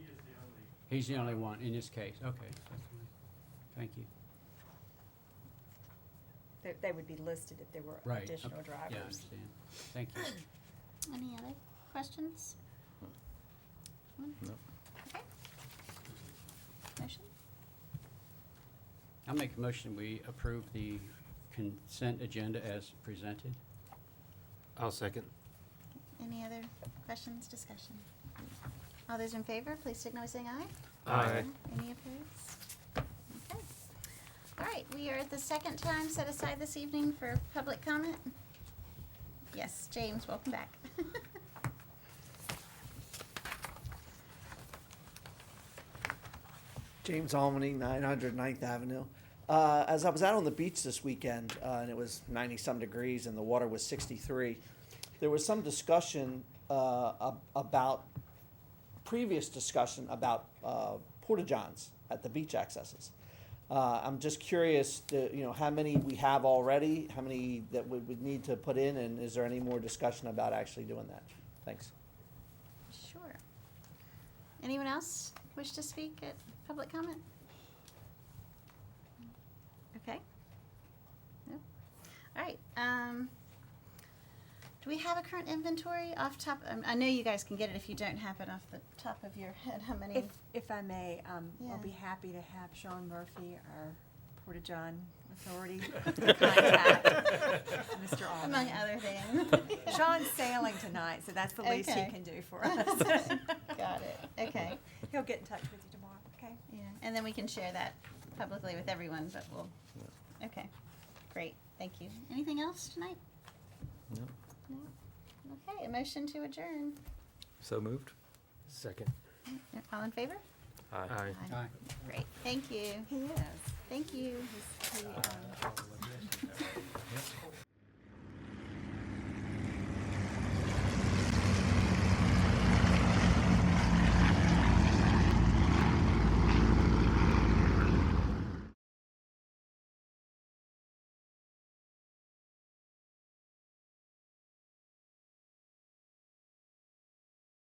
He's the only one in this case. Okay, that's fine. Thank you. They, they would be listed if there were Right. additional okay. Yeah, I drivers. understand. Thank you. Any other questions? Hmm? No. Okay. Motion? I'll make a motion, we approve the consent agenda as presented. I'll second. Any other questions, discussion? All those in favor, please signal by saying aye. Aye. Any opposed? Okay. All right, we are at the second time set aside this evening for public comment. Yes, James, welcome back. James Almany, 900 Ninth Avenue. Uh, as I was out on the beach this weekend, uh, and it was 90 some degrees, and the water was 63, there was some discussion uh, ab- about previous discussion about uh, porta johns at the beach accesses. Uh, I'm just curious, to, you know, how many we have already, how many that we would need to put in, and is there any more discussion about actually doing that? Thanks. Sure. Anyone else wish to speak at public comment? Okay. No? All right, um, do we have a current inventory off top, um, I know you guys can get it if you don't have it off the top of your head, how many? If, if I may, um, Yeah. I'll be happy to have Sean Murphy, our Portageon Authority contact, Mr. Among Almond. other things. Sean's sailing tonight, so that's the least he Okay. can do for us. Got it, okay, He'll get in touch with you tomorrow, okay? yeah, and then we can share that publicly with everyone, but we'll, okay, great, thank you. Anything else tonight? No. No? Okay, a motion to adjourn. So moved? Second. All in favor? Aye. Aye. Great, thank you, He is. thank you. He's- he, um,